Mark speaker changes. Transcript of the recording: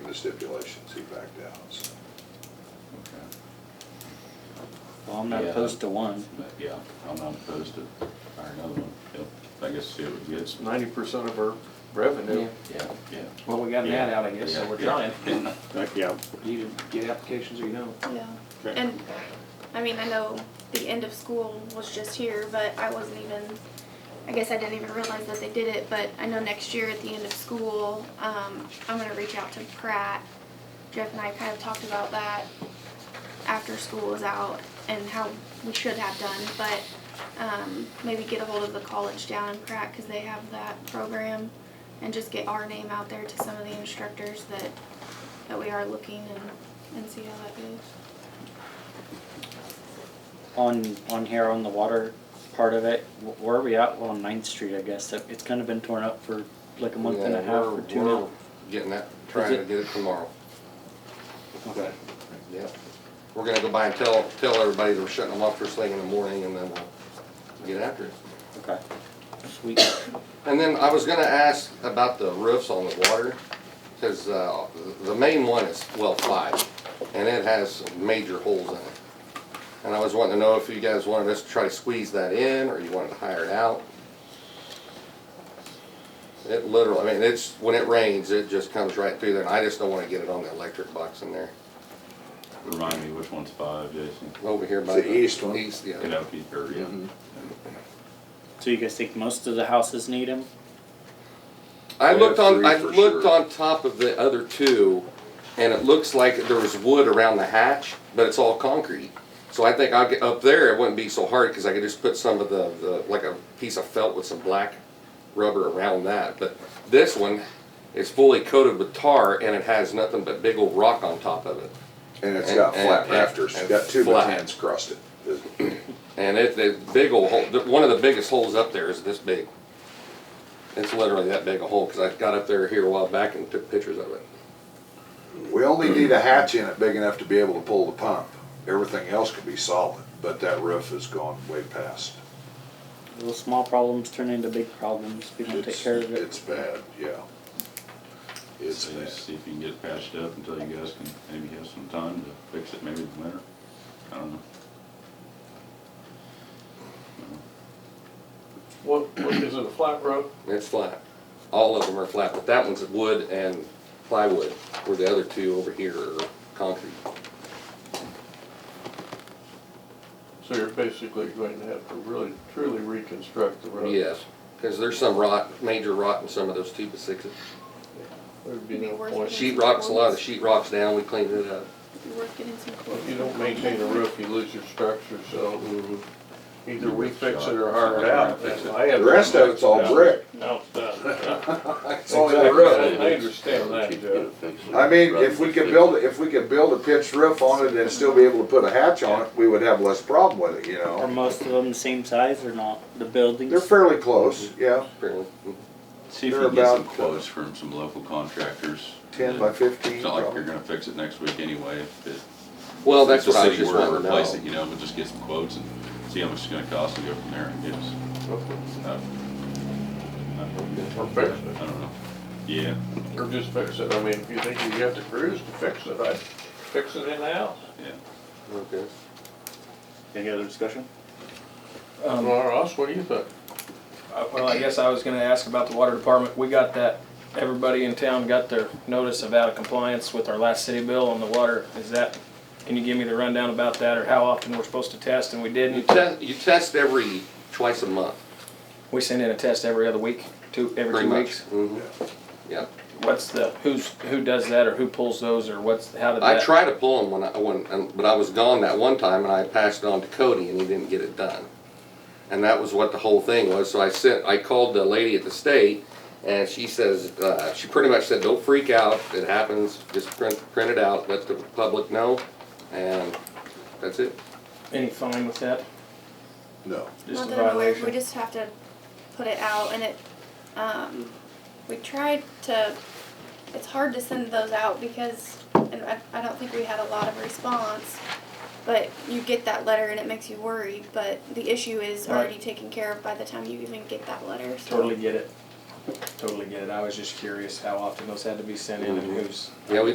Speaker 1: the stipulations, he backed out, so.
Speaker 2: Well, I'm not
Speaker 3: Yeah.
Speaker 2: opposed to one.
Speaker 3: But yeah, I'm not opposed to hire another one. Yep, I guess see what it gets.
Speaker 4: Ninety percent of our revenue.
Speaker 3: Yeah, yeah.
Speaker 2: Well, we got an ad out, I guess, so we're
Speaker 3: Yeah,
Speaker 2: trying.
Speaker 3: yeah.
Speaker 5: Yeah,
Speaker 2: You either get applications or you don't.
Speaker 6: Yeah,
Speaker 5: Okay.
Speaker 6: and, I mean, I know the end of school was just here, but I wasn't even, I guess I didn't even realize that they did it, but I know next year at the end of school, um, I'm gonna reach out to Pratt. Jeff and I kind of talked about that after school is out and how we should have done, but, um, maybe get a hold of the college down in Pratt, cause they have that program, and just get our name out there to some of the instructors that, that we are looking and, and see how that goes.
Speaker 2: On, on here, on the water part of it, wh- where are we at? Well, on Ninth Street, I guess. That- It's kind of been torn up for like a month and a
Speaker 7: Yeah,
Speaker 2: half
Speaker 7: we're-
Speaker 2: or two
Speaker 7: we're
Speaker 2: now.
Speaker 7: Getting that, trying to
Speaker 2: it-
Speaker 7: get it tomorrow,
Speaker 2: Okay.
Speaker 7: yeah. We're gonna go by and tell, tell everybody that we're shutting them off first thing in the morning and then we'll get after it.
Speaker 2: Okay. Sweet.
Speaker 7: And then I was gonna ask about the roofs on the water, cause, uh, the main one is well five, and it has major holes in it. And I was wanting to know if you guys wanted us to try to squeeze that in, or you wanted to hire it out. It literally, I mean, it's, when it rains, it just comes right through there, and I just don't wanna get it on the electric box in there,
Speaker 3: Remind me which one's five, Jason?
Speaker 7: over here by
Speaker 1: The
Speaker 7: the.
Speaker 1: east one.
Speaker 7: East, yeah.
Speaker 3: Canopy, or, yeah.
Speaker 1: Mm-hmm.
Speaker 2: So you guys think most of the houses need them?
Speaker 7: I
Speaker 1: We
Speaker 7: looked
Speaker 1: have
Speaker 7: on,
Speaker 1: three
Speaker 7: I
Speaker 1: for
Speaker 7: looked
Speaker 1: sure.
Speaker 7: on top of the other two, and it looks like there was wood around the hatch, but it's all concrete. So I think I'll get up there, it wouldn't be so hard, cause I could just put some of the, the, like a piece of felt with some black rubber around that. But this one is fully coated with tar and it has nothing but big old rock on top of it.
Speaker 1: And it's got
Speaker 7: And-
Speaker 1: flat
Speaker 7: and-
Speaker 1: rafters,
Speaker 7: and
Speaker 1: got two
Speaker 7: flat.
Speaker 1: battens crossed it.
Speaker 7: And it, the big old hole, the- one of the biggest holes up there is this big. It's literally that big a hole, cause I got up there here a while back and took pictures of it.
Speaker 1: We only need a hatch in it big enough to be able to pull the pump. Everything else could be solid, but that roof has gone way past.
Speaker 2: Little small problems turn into big problems if we don't take
Speaker 1: It's,
Speaker 2: care of it.
Speaker 1: it's bad, yeah. It's
Speaker 3: See-
Speaker 1: bad.
Speaker 3: See if you can get it patched up until you guys can maybe have some time to fix it, maybe in the winter. I don't know.
Speaker 4: What, what is it, a flat roof?
Speaker 7: It's flat. All of them are flat, but that one's wood and plywood, where the other two over here are concrete.
Speaker 4: So you're basically going to have to really truly reconstruct the road.
Speaker 7: Yes, because there's some rot, major rot in some of those two by sixes.
Speaker 4: There'd be
Speaker 6: Be
Speaker 4: no
Speaker 6: worth
Speaker 4: point.
Speaker 6: it.
Speaker 7: Sheet rocks, a lot of the sheet rocks down, we cleaned it up.
Speaker 6: You're working in some quotes.
Speaker 4: If you don't maintain a roof, you lose your structure, so either we fix it or hire it out.
Speaker 3: Fix it.
Speaker 4: I have-
Speaker 1: The rest of it's all brick.
Speaker 4: No, uh,
Speaker 1: It's only the
Speaker 4: Exactly,
Speaker 1: roof.
Speaker 4: I I understand that, Jeff.
Speaker 1: I mean, if we could build, if we could build a pitched roof on it and still be able to put a hatch on it, we would have less problem with it, you
Speaker 2: Are
Speaker 1: know?
Speaker 2: most of them the same size or not? The
Speaker 1: They're
Speaker 2: buildings?
Speaker 1: fairly close, yeah,
Speaker 7: apparently.
Speaker 3: See if you
Speaker 1: They're
Speaker 3: can get some
Speaker 1: about, uh,
Speaker 3: quotes from some local contractors.
Speaker 1: ten by fifteen
Speaker 3: It's not like you're
Speaker 1: probably.
Speaker 3: gonna fix it next week anyway, if it.
Speaker 7: Well, that's
Speaker 3: if
Speaker 7: what
Speaker 3: the
Speaker 7: I was
Speaker 3: city
Speaker 7: just
Speaker 3: were
Speaker 7: wanting to
Speaker 3: replace it,
Speaker 7: know.
Speaker 3: You know, but just get some quotes and see how much it's gonna cost and go from there, I guess. Uh,
Speaker 4: Or fix it.
Speaker 3: I don't know. Yeah,
Speaker 4: Or just fix it, I mean, if you think you have the crews to fix it, I'd fix it in-house.
Speaker 3: yeah.
Speaker 7: Okay.
Speaker 2: Any other discussion?
Speaker 4: Well,
Speaker 8: Um,
Speaker 4: Ross, what do you think?
Speaker 8: I- Uh, Well, I guess I was gonna ask about the water department. We got that, everybody in town got their notice of out of compliance with our last city bill on the water. Is that, can you give me the rundown about that or how often we're supposed to test and we
Speaker 7: You
Speaker 8: didn't?
Speaker 7: test, you test every, twice a month,
Speaker 8: We send in a test every other week, two, every
Speaker 7: pretty
Speaker 8: two
Speaker 7: much.
Speaker 8: weeks.
Speaker 7: Mhm. Yeah.
Speaker 8: What's the, who's, who does that or who pulls those or what's, how did
Speaker 7: I
Speaker 8: that?
Speaker 7: tried to pull him when I, when, and- but I was gone that one time and I passed it on to Cody and he didn't get it done. And that was what the whole thing was, so I sent, I called the lady at the state and she says, uh, she pretty much said, don't freak out, it happens, just print, print it out, let the public know, and that's it.
Speaker 8: Any fine with that?
Speaker 1: No.
Speaker 8: Just
Speaker 6: Not
Speaker 8: a
Speaker 6: that I'm aware of,
Speaker 8: violation.
Speaker 6: we just have to put it out and it, um, we tried to, it's hard to send those out because, and I, I don't think we had a lot of response. But you get that letter and it makes you worried, but the issue is
Speaker 8: Right.
Speaker 6: already taken care of by the time you even get that letter, so.
Speaker 8: Totally get it. Totally get it. I was just curious how often those had to be sent in and who's.
Speaker 7: Yeah, we